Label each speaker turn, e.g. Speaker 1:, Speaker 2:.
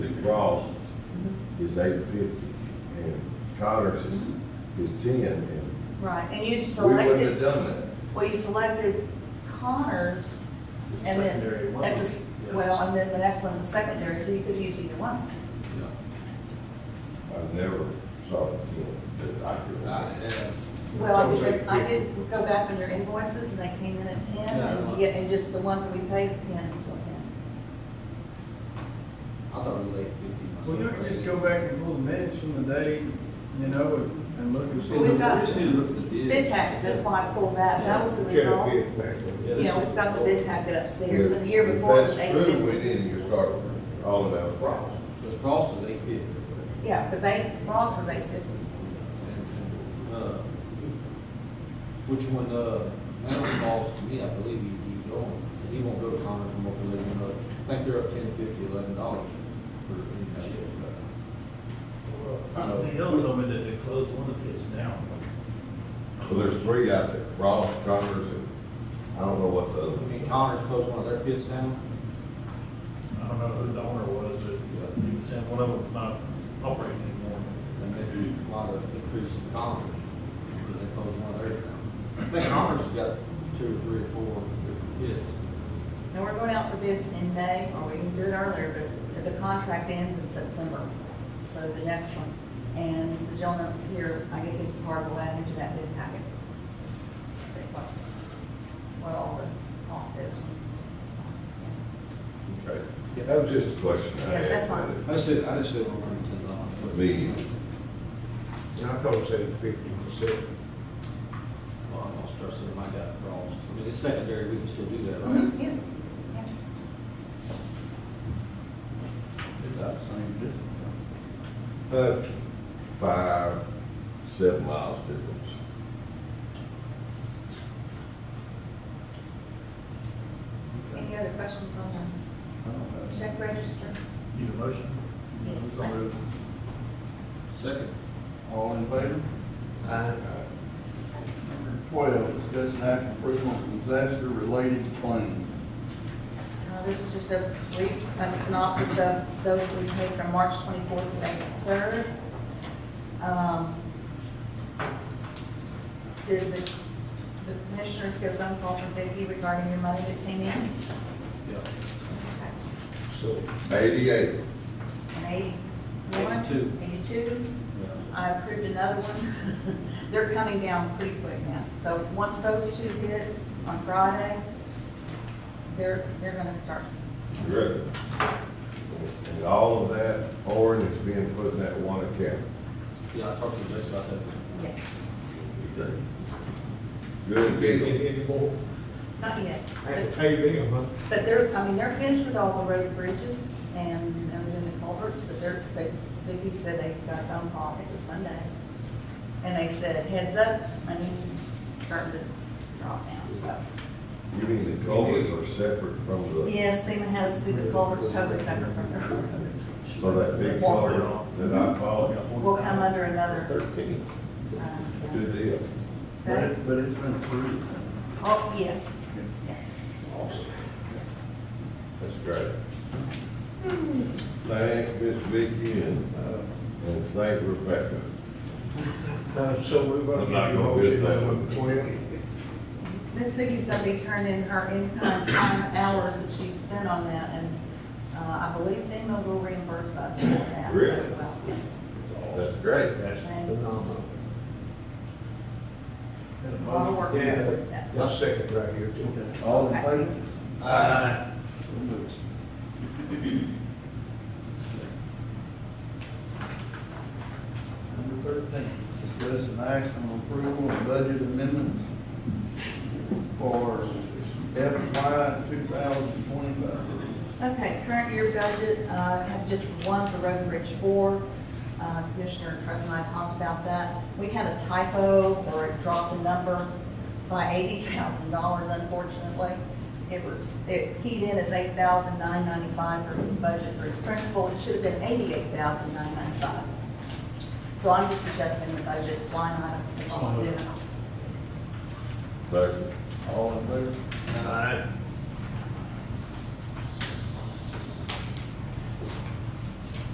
Speaker 1: Frost is eight fifty, and Connors is, is ten, and
Speaker 2: Right, and
Speaker 1: we
Speaker 2: you
Speaker 1: wouldn't have
Speaker 2: selected,
Speaker 1: done
Speaker 2: well, you selected Connors
Speaker 3: It's a
Speaker 2: And then,
Speaker 3: secondary one.
Speaker 2: as a, s-
Speaker 3: Yeah.
Speaker 2: well, and then the next one's a secondary, so you could use either one.
Speaker 1: that. I never saw a ten that I could.
Speaker 3: I-
Speaker 1: remember.
Speaker 3: yeah.
Speaker 2: Well, I
Speaker 3: Those
Speaker 2: did,
Speaker 3: are-
Speaker 2: I did go back on your invoices and they came in at ten,
Speaker 3: Yeah, I know.
Speaker 2: and yeah, and just the ones that we paid, ten, so ten.
Speaker 4: I thought it was eight fifty. myself.
Speaker 5: Well, you can just go back and pull the minutes from the day, you know, and- and look and see.
Speaker 2: We've got-
Speaker 4: We just need to look at the bid.
Speaker 2: Bid packet, that's why I pulled that, that was the result.
Speaker 3: Yeah, this
Speaker 2: Yeah,
Speaker 3: is-
Speaker 2: we've got the bid packet upstairs,
Speaker 1: But
Speaker 2: and the year before it was eight
Speaker 1: If that's true, we
Speaker 2: fifty.
Speaker 1: didn't just start all of that Frost.
Speaker 4: Because Frost is eight fifty.
Speaker 2: Yeah, because eight, Frost was eight fifty.
Speaker 4: uh, Which one, uh, that one falls to me, I believe he, he going, because he won't go to Connors and won't go to Lebanon. uh, I think they're up ten fifty, eleven dollars for anybody else. but-
Speaker 3: Well, Hill told me that they closed one of his down.
Speaker 1: So there's three out there, Frost, Connors, and I don't know what the other.
Speaker 4: I mean, Connors closed one of their pits down.
Speaker 3: I don't know who the owner was, but he was saying one of them was not operating anymore.
Speaker 4: And maybe a lot of increase in Connors, because they closed one of theirs down. I think Connors has got two or three or four different pits.
Speaker 2: And we're going out for bids in May, or we can do it earlier, but the contract ends in September, so the next one. And the gentleman that's here, I get his card, we'll add into that bid packet. See what, what all the cost is. So,
Speaker 1: Okay, that was just a question I
Speaker 2: Yeah,
Speaker 1: had.
Speaker 2: that's fine.
Speaker 4: I just said, I just said one hundred ten dollars.
Speaker 1: Me.
Speaker 6: I thought it said fifty percent.
Speaker 4: Well, I'm gonna start saying my guy Frost. I mean, it's secondary, we can still do that,
Speaker 2: yeah.
Speaker 4: right?
Speaker 6: Mm-hmm.
Speaker 2: Mhm, Yes. Yeah.
Speaker 1: Uh, five, seven miles difference.
Speaker 2: Any other questions on the check register?
Speaker 3: Need a motion?
Speaker 2: Yes.
Speaker 3: So moved.
Speaker 4: Second.
Speaker 7: All in favor?
Speaker 6: Aye.
Speaker 7: Number twelve, discuss and act approval on disaster-related claims.
Speaker 2: Uh, This is just a brief um, synopsis of those we paid from March 24th to April 3rd. Um, Did the the commissioners get a phone call from Vicki regarding your money that came in?
Speaker 4: Yeah.
Speaker 2: Okay.
Speaker 6: So,
Speaker 1: Eighty-eight.
Speaker 2: An 81?
Speaker 4: Eighty-two.
Speaker 2: 82? I approved another one. They're coming down pretty quick now. So once those two hit on Friday, they're, they're going to start.
Speaker 1: Correct. And all of that orange is being put in that one account.
Speaker 4: Yeah, I talked to Jess about that.
Speaker 2: Yes.
Speaker 1: Good deal.
Speaker 6: any more?
Speaker 2: Not yet.
Speaker 6: I had to pay them, huh?
Speaker 2: But they're, I mean, they're finished with all the road bridges and, and then the culverts, but they're, they, Vicky said they got a phone call, I think it was Monday. And they said, heads up, money's starting to drop now,
Speaker 1: You mean the culverts are separate from
Speaker 2: so.
Speaker 1: the,
Speaker 2: Yes, FEMA has to do the culverts totally separate from their roads.
Speaker 1: so that big culvert that I called?
Speaker 2: Will come under another,
Speaker 1: Thirteen.
Speaker 2: uh,
Speaker 1: Good deal.
Speaker 3: But
Speaker 2: that-
Speaker 3: it, but it's been approved.
Speaker 2: oh, yes, yeah.
Speaker 1: Awesome. That's great. Thank Miss Vicky and, uh, and thank Rebecca.
Speaker 6: Uh, so we're gonna
Speaker 1: I'm not
Speaker 6: get a
Speaker 1: gonna miss
Speaker 6: motion
Speaker 1: that
Speaker 6: on
Speaker 1: one.
Speaker 6: the twelve.
Speaker 2: Miss Vicky's gonna be turning her income, time, hours that she spent on that, and, uh, I believe FEMA will reimburse us for that as
Speaker 1: Really?
Speaker 2: well. Yes.
Speaker 1: That's great.
Speaker 6: That's phenomenal.
Speaker 3: Had a
Speaker 2: A lot of
Speaker 3: motion.
Speaker 2: work
Speaker 6: Yeah.
Speaker 2: goes into that.
Speaker 6: My second right here too.
Speaker 3: All in favor?
Speaker 7: Aye.
Speaker 3: So moved. Number thirteen, discuss an act on approval of budget amendments for FY two thousand twenty-five.
Speaker 2: Okay, current year budget, uh, have just one for Road and Bridge Four. Uh, Commissioner Trust and I talked about that. We had a typo, or it dropped a number by eighty thousand dollars unfortunately. It was, it keyed in as eight thousand nine ninety-five for his budget for his principal, it should have been eighty-eight thousand nine ninety-five. So I'm just adjusting the budget line item, that's all I'm doing.
Speaker 1: Second.
Speaker 3: All in favor?
Speaker 6: Aye.